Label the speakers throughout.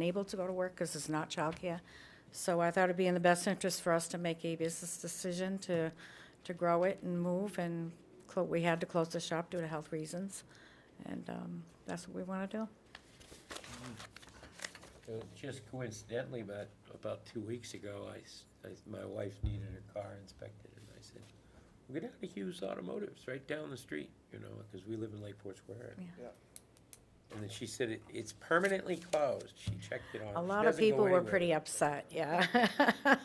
Speaker 1: unable to go to work because it's not childcare. So I thought it'd be in the best interest for us to make a business decision to, to grow it and move, and clo- we had to close the shop due to health reasons, and um, that's what we want to do.
Speaker 2: Uh, Just coincidentally, about, about two weeks ago, I, s- I- my wife needed her car inspected, and I said, we're gonna have a Hughes Automotives right down the street, you know, because we live in Lakeport Square.
Speaker 1: Yeah.
Speaker 3: Yeah.
Speaker 2: And then she said, "It- it's permanently closed, she checked it on.
Speaker 1: A
Speaker 2: She
Speaker 1: lot of
Speaker 2: doesn't go
Speaker 1: people were
Speaker 2: anywhere.
Speaker 1: pretty upset, yeah.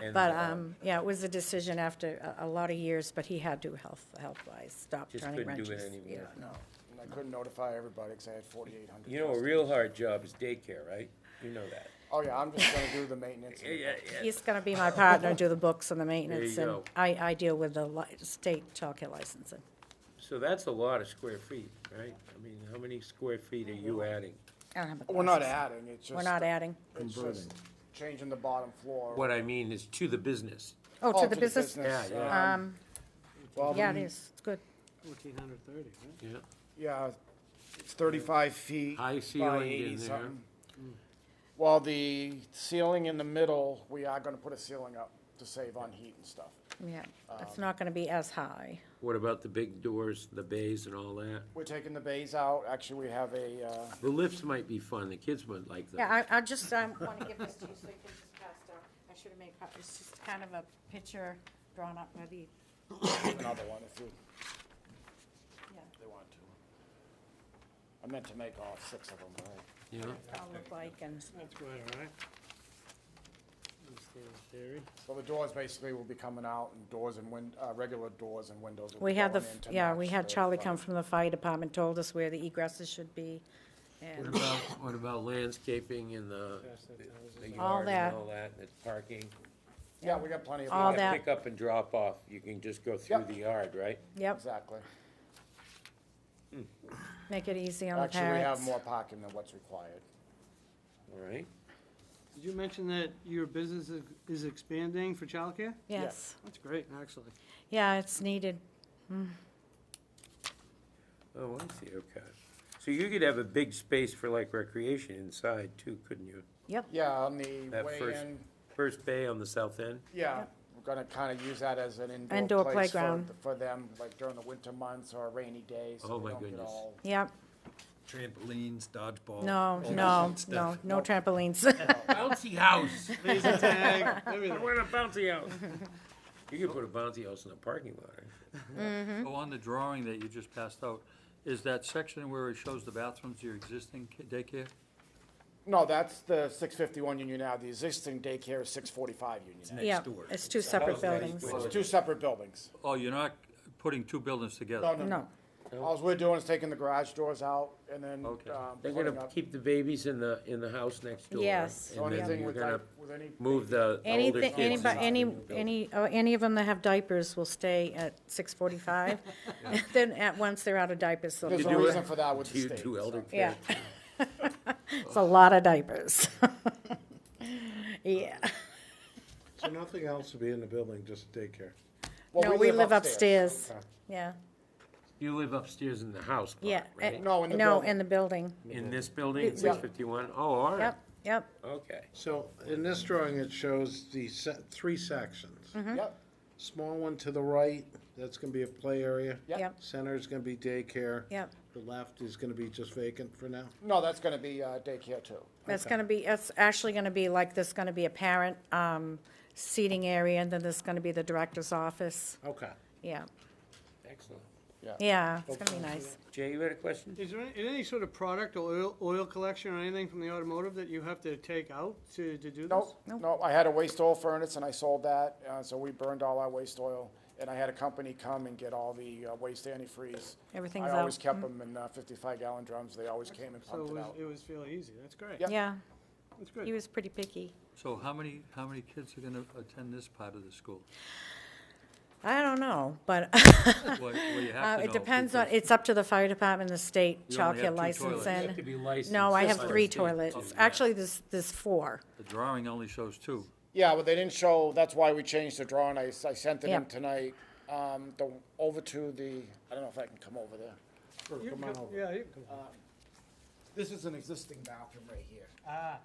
Speaker 2: And,
Speaker 1: But,
Speaker 2: uh,
Speaker 1: um, yeah, it was a decision after a, a lot of years, but he had to health, health-wise, stop
Speaker 2: Just
Speaker 1: turning
Speaker 2: couldn't do
Speaker 1: wrenches.
Speaker 2: it anymore.
Speaker 1: Yeah.
Speaker 3: No, and I couldn't notify everybody because I had forty-eight hundred.
Speaker 2: You know, a real hard job is daycare, right? You know that.
Speaker 3: Oh, yeah, I'm just gonna do the maintenance. and-
Speaker 1: He's gonna be my partner, do the books and the maintenance,
Speaker 2: you
Speaker 1: and
Speaker 2: go.
Speaker 1: I, I deal with the li- state childcare licensing.
Speaker 2: So that's a lot of square feet, right? I mean, how many square feet are you adding?
Speaker 1: I don't have the
Speaker 3: We're not
Speaker 1: glasses.
Speaker 3: adding, it's just.
Speaker 1: We're not adding.
Speaker 3: It's just changing the bottom floor.
Speaker 2: What I mean is to the business.
Speaker 1: Oh,
Speaker 3: Oh,
Speaker 1: to the business,
Speaker 2: Yeah, yeah.
Speaker 3: um,
Speaker 1: um,
Speaker 3: well,
Speaker 1: yeah, it
Speaker 3: the-
Speaker 1: is, it's good.
Speaker 4: Fourteen hundred thirty, right?
Speaker 2: Yeah.
Speaker 3: Yeah, it's thirty-five feet
Speaker 2: High
Speaker 3: by
Speaker 2: ceiling in
Speaker 3: eighty
Speaker 2: there.
Speaker 3: something. While the ceiling in the middle, we are gonna put a ceiling up to save on heat and stuff.
Speaker 1: Yeah, it's not gonna be as high.
Speaker 2: What about the big doors, the bays and all that?
Speaker 3: We're taking the bays out, actually, we have a, uh,
Speaker 2: The lifts might be fun, the kids might like them.
Speaker 1: Yeah, I, I just, um wanna give this to you so you can just pass down. I should've made copies, it's just kind of a picture drawn up by the,
Speaker 3: another one if you,
Speaker 1: yeah,
Speaker 3: they want to. I meant to make all six of them, right?
Speaker 2: Yeah,
Speaker 1: all look like, and
Speaker 4: That's quite all right. Understand the theory.
Speaker 3: So the doors basically will be coming out and doors and win, uh, regular doors and windows will
Speaker 1: we
Speaker 3: be
Speaker 1: had the,
Speaker 3: going in to
Speaker 1: yeah,
Speaker 3: match
Speaker 1: we had
Speaker 3: the
Speaker 1: Charlie
Speaker 3: front.
Speaker 1: come from the fire department, told us where the egresses should be,
Speaker 2: What
Speaker 1: and
Speaker 2: about, what about landscaping and the, the
Speaker 1: All
Speaker 2: yard
Speaker 1: that.
Speaker 2: and all that, and the parking?
Speaker 3: Yeah, we got plenty of.
Speaker 1: All
Speaker 3: room.
Speaker 1: that.
Speaker 2: Pick up and drop off, you can just go through
Speaker 3: Yep.
Speaker 2: the yard, right?
Speaker 1: yep,
Speaker 3: Exactly.
Speaker 1: make it easy on the
Speaker 3: Actually, we have
Speaker 1: parents.
Speaker 3: more parking than what's required.
Speaker 2: All right,
Speaker 4: Did you mention that your business is- is expanding for childcare?
Speaker 3: yeah.
Speaker 1: Yes,
Speaker 4: That's great, actually.
Speaker 1: yeah, it's needed.
Speaker 2: oh, I see, okay. So you could have a big space for like recreation inside too, couldn't you?
Speaker 3: Yeah, on the
Speaker 2: That
Speaker 3: way
Speaker 2: first-
Speaker 3: in,
Speaker 2: First bay on the south end?
Speaker 3: yeah, we're gonna kinda use that as an
Speaker 1: Indoor
Speaker 3: indoor place for,
Speaker 1: playground.
Speaker 3: for them, like during the winter months or a rainy day,
Speaker 2: Oh
Speaker 3: so we
Speaker 2: my
Speaker 3: don't get
Speaker 2: goodness.
Speaker 3: all.
Speaker 1: Yep,
Speaker 5: trampolines,
Speaker 2: Oh,
Speaker 5: dodgeball. all
Speaker 1: no,
Speaker 5: that
Speaker 1: no,
Speaker 5: good stuff.
Speaker 1: no, no trampolines.
Speaker 2: Bouncy house!
Speaker 4: Laser tag,
Speaker 2: I
Speaker 4: everything.
Speaker 2: want a bouncy house! You could put a bouncy house in the parking lot, eh? right?
Speaker 6: So on the drawing that you just passed out, is that section where it shows the bathrooms, your existing ki- daycare?
Speaker 3: No, that's the six fifty-one Union Ave, the existing daycare is six forty-five Union Ave.
Speaker 1: Yeah,
Speaker 5: door.
Speaker 1: it's two separate
Speaker 2: that
Speaker 1: buildings.
Speaker 2: equal-
Speaker 3: It's two separate buildings.
Speaker 6: Oh, you're not putting two buildings
Speaker 3: No,
Speaker 6: together?
Speaker 3: no,
Speaker 1: No,
Speaker 3: no. All we're doing is taking the garage doors out and then, um,
Speaker 6: Okay.
Speaker 2: They're
Speaker 3: putting
Speaker 2: gonna
Speaker 3: up.
Speaker 2: keep the babies in the, in the house next door.
Speaker 1: Yes.
Speaker 3: So
Speaker 2: And then
Speaker 3: anything
Speaker 2: you're
Speaker 3: with like,
Speaker 2: gonna
Speaker 3: with any.
Speaker 2: move the the older
Speaker 1: anything,
Speaker 2: kids.
Speaker 1: anybody,
Speaker 2: into
Speaker 1: any,
Speaker 2: the new building.
Speaker 1: any, oh, any of them that have diapers will stay at six forty-five. Then at once they're out of diapers, they'll,
Speaker 3: There's
Speaker 2: You
Speaker 3: a
Speaker 2: do
Speaker 3: reason
Speaker 2: it-
Speaker 3: for that with the
Speaker 2: Two,
Speaker 3: state,
Speaker 2: two elder
Speaker 3: so.
Speaker 1: yeah.
Speaker 2: kids.
Speaker 1: It's a lot of diapers. Yeah,
Speaker 7: So nothing else to be in the building, just daycare.
Speaker 3: Well,
Speaker 1: no, we live upstairs, yeah,
Speaker 2: You live upstairs in the house
Speaker 1: yeah. Eh,
Speaker 2: part, right?
Speaker 3: No, in the
Speaker 1: No,
Speaker 3: building.
Speaker 1: in the building,
Speaker 2: In this building,
Speaker 1: Yeah.
Speaker 2: six fifty-one? Oh, all right,
Speaker 1: yep, yep,
Speaker 2: okay.
Speaker 7: So in this drawing, it shows the se- three sections.
Speaker 1: Mm-hmm.
Speaker 3: Yep,
Speaker 7: Small one to the right, that's gonna be a play area.
Speaker 3: Yeah.
Speaker 1: yep,
Speaker 7: Center is gonna be daycare.
Speaker 1: yep.
Speaker 7: The left is gonna be just vacant for now.
Speaker 3: no, that's gonna be uh, daycare too.
Speaker 1: That's gonna be, that's actually gonna be like, there's gonna be a parent, um, seating area, and then there's gonna be the director's office,
Speaker 7: Okay.
Speaker 1: yeah,
Speaker 2: Excellent.
Speaker 1: yeah, it's gonna be nice.
Speaker 2: Jay, you had a question?
Speaker 4: Is there any- any sort of product or oil, oil collection or anything from the automotive that you have to take out to, to do this?
Speaker 3: Nope,
Speaker 1: Nope.
Speaker 3: nope, I had a waste oil furnace and I sold that, uh, so we burned all our waste oil. And I had a company come and get all the uh, waste antifreeze.
Speaker 1: Everything's
Speaker 3: I always
Speaker 1: out.
Speaker 2: Mm.
Speaker 3: kept them in uh, fifty-five gallon drums, they always came and
Speaker 4: So it
Speaker 3: pumped it
Speaker 4: was,
Speaker 3: out.
Speaker 4: it was fairly easy, that's great,
Speaker 3: Yep.
Speaker 1: Yeah,
Speaker 4: that's
Speaker 1: he
Speaker 4: good.
Speaker 1: was pretty picky.
Speaker 6: So how many, how many kids are gonna attend this part of the school?
Speaker 1: I don't know, but
Speaker 6: Well, well, you have
Speaker 1: uh,
Speaker 6: to
Speaker 1: it
Speaker 6: know
Speaker 1: depends on,
Speaker 6: because-
Speaker 1: it's up to the fire department, the state
Speaker 6: You only
Speaker 1: childcare
Speaker 6: have two
Speaker 1: license
Speaker 6: toilets.
Speaker 2: You have to
Speaker 1: and.
Speaker 2: be licensed.
Speaker 1: No, I have
Speaker 2: by the
Speaker 1: three
Speaker 2: state to do
Speaker 1: toilets.
Speaker 2: that.
Speaker 1: Actually, there's, there's four.
Speaker 6: The drawing only shows two.
Speaker 3: Yeah, well, they didn't show, that's why we changed the drawing, I, s- I sent it
Speaker 1: Yeah.
Speaker 3: in tonight, um, the, over to the, I don't know if I can come over there.
Speaker 7: Sure,
Speaker 4: You
Speaker 7: come
Speaker 4: can
Speaker 7: on
Speaker 4: come-
Speaker 7: over.
Speaker 4: Yeah, you can come.
Speaker 3: This is an existing bathroom right here.
Speaker 4: Ah.